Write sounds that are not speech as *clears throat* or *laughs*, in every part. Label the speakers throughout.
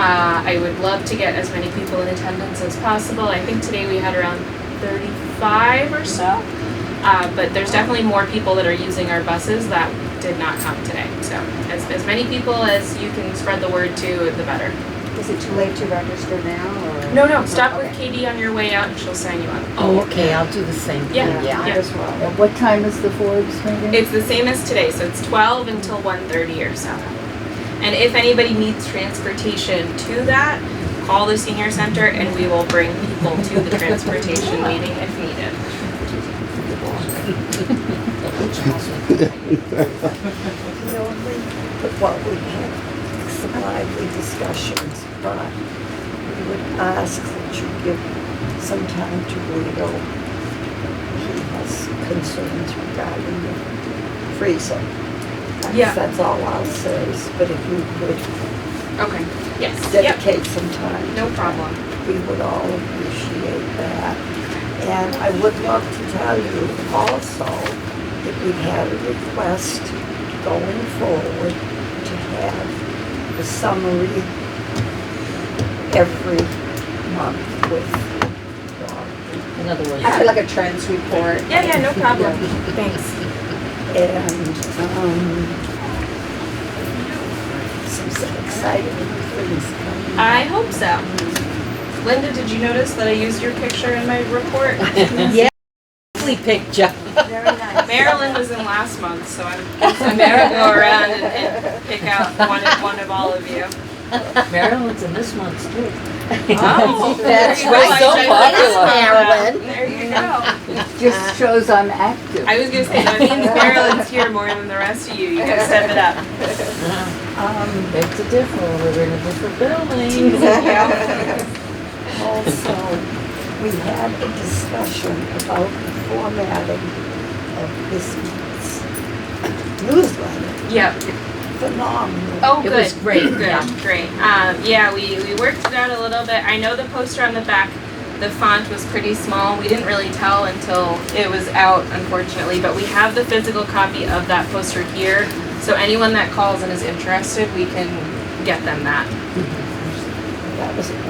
Speaker 1: Uh, I would love to get as many people in attendance as possible. I think today we had around thirty-five or so. Uh, but there's definitely more people that are using our buses that did not come today. So as, as many people as you can spread the word to, the better.
Speaker 2: Is it too late to register now or?
Speaker 1: No, no, stop with
Speaker 2: Okay.
Speaker 1: Katie on your way out and she'll sign you up.
Speaker 3: Oh, okay, I'll do the same thing,
Speaker 1: Yeah,
Speaker 3: yeah.
Speaker 2: I as well.
Speaker 4: At What time is the Forbes meeting?
Speaker 1: It's the same as today, so it's twelve until 1:30 or so. And if anybody needs transportation to that, call the senior center and we will bring people to the transportation meeting if needed.
Speaker 5: You know, we put what we had, some lively discussions, but we would ask that you give some time to Guido. He has concerns regarding the freezer. That's-
Speaker 1: Yeah.
Speaker 5: That's all I'll say, but if you could
Speaker 1: Okay. Yes, yep,
Speaker 5: dedicate some time.
Speaker 1: no
Speaker 5: to
Speaker 1: problem.
Speaker 5: that, We would all appreciate that. And I would love to tell you also that we had a request going forward to have the summary every month with Rob.
Speaker 3: In other words,
Speaker 2: I feel like a trends report.
Speaker 1: Yeah, yeah, no problem. Thanks.
Speaker 5: and um, some um, exciting things coming.
Speaker 1: I hope so. Linda, did you notice that I used your picture in my report?
Speaker 3: lovely picture.
Speaker 2: Very nice.
Speaker 1: Marilyn was in last month, so I'm I'm gonna go around and, and pick out one of, one of all of you.
Speaker 3: Maryland's in this one's *laughs* too.
Speaker 1: Oh,
Speaker 3: That's
Speaker 1: there you go.
Speaker 3: right, so
Speaker 1: I should-
Speaker 3: popular.
Speaker 1: Marilyn. There you go.
Speaker 4: Just shows I'm active.
Speaker 1: I was gonna say, that means Marilyn's here more than the rest of you, you gotta step it up.
Speaker 5: Um,
Speaker 3: It's a different, we're in a different building.
Speaker 5: Also, we had a discussion about the formatting of this month's newsletter.
Speaker 1: Yep.
Speaker 5: Phenomenal.
Speaker 1: Oh,
Speaker 3: It
Speaker 1: good.
Speaker 3: was great,
Speaker 1: Good.
Speaker 3: yeah.
Speaker 1: Great. Um, yeah, we, we worked it out a little bit. I know the poster on the back, the font was pretty small. We didn't really tell until it was out, unfortunately. But we have the physical copy of that poster here. So anyone that calls and is interested, we can get them that.
Speaker 5: That was a great
Speaker 1: Oh.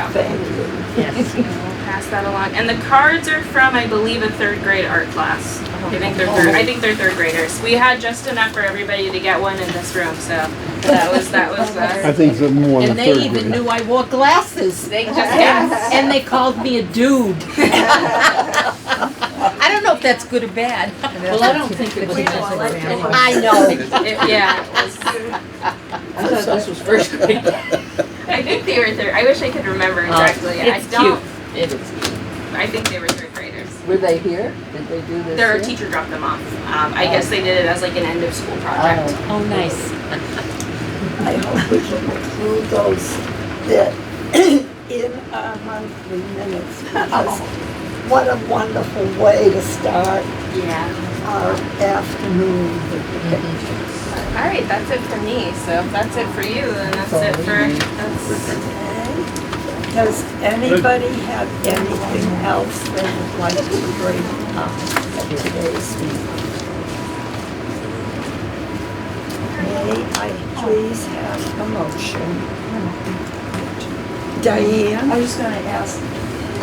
Speaker 5: job. Thank you.
Speaker 3: Yes.
Speaker 1: And we'll pass that along. And the cards are from, I believe, a third grade art class.
Speaker 3: Oh,
Speaker 1: I think they're third, I think they're third graders. We had just enough for everybody to get one in this room, so that was that was uh,
Speaker 3: *laughs*
Speaker 6: I think it's more than
Speaker 3: And
Speaker 6: third grade.
Speaker 3: they even knew I wore glasses.
Speaker 1: they just
Speaker 3: And,
Speaker 1: yes.
Speaker 3: and they called me a dude. I don't know if that's good or bad. Well, I don't think it was.
Speaker 1: We don't like it.
Speaker 3: I know.
Speaker 1: It- yeah, it was-
Speaker 3: I thought this was *laughs* first grade. Um,
Speaker 1: I think they were third. I wish I could remember exactly. I
Speaker 3: Oh, It's
Speaker 1: don't.
Speaker 3: cute. It is.
Speaker 1: I think they were third graders.
Speaker 4: Were they here? Did they do this?
Speaker 1: Their
Speaker 4: here?
Speaker 1: teacher dropped them off. Um, I guess they did it as like an end of school project.
Speaker 4: Oh.
Speaker 3: Oh, nice.
Speaker 5: I hope we can include those that *clears throat* in our monthly minutes. because What a wonderful way to start
Speaker 3: Oh.
Speaker 1: Yeah.
Speaker 5: our afternoon with the pictures.
Speaker 1: All right, that's it for me. So if that's it for you, then that's it for. That's,
Speaker 5: Does anybody have anything else they would like to bring up at today's meeting? May I please have a motion? Diane?
Speaker 7: I was just gonna ask,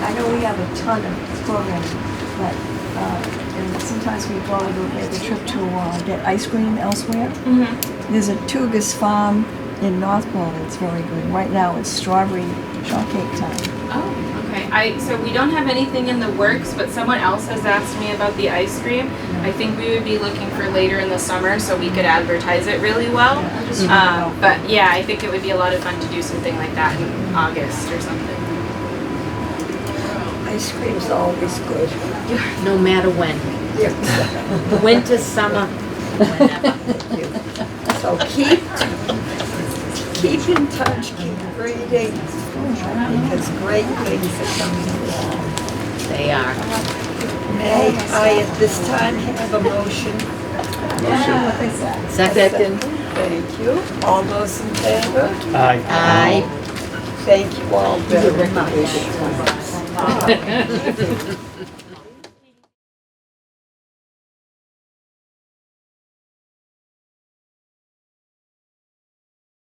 Speaker 7: I know we have a ton of programming, but, uh, and sometimes we go to make a trip to, uh, get ice cream elsewhere.
Speaker 1: Mhm.
Speaker 7: There's a Tugas Farm in Northpole that's very good. Right now it's strawberry shortcake time.
Speaker 1: Oh, okay. I so we don't have anything in the works, but someone else has asked me about the ice cream. I think we would be looking for later in the summer, so we could advertise it really well.
Speaker 7: I just wanna know.
Speaker 1: Um, but yeah, I think it would be a lot of fun to do something like that in August or something.
Speaker 5: Ice cream's always good.
Speaker 3: No matter when,
Speaker 5: Yes.
Speaker 3: winter, summer, whenever.
Speaker 5: So keep, keep in touch, keep reading, because great things are coming along.
Speaker 3: They are.
Speaker 5: May I at this time have a motion?
Speaker 3: Second.
Speaker 5: Thank you. All those in favor?
Speaker 3: Aye.
Speaker 5: Thank you all very much.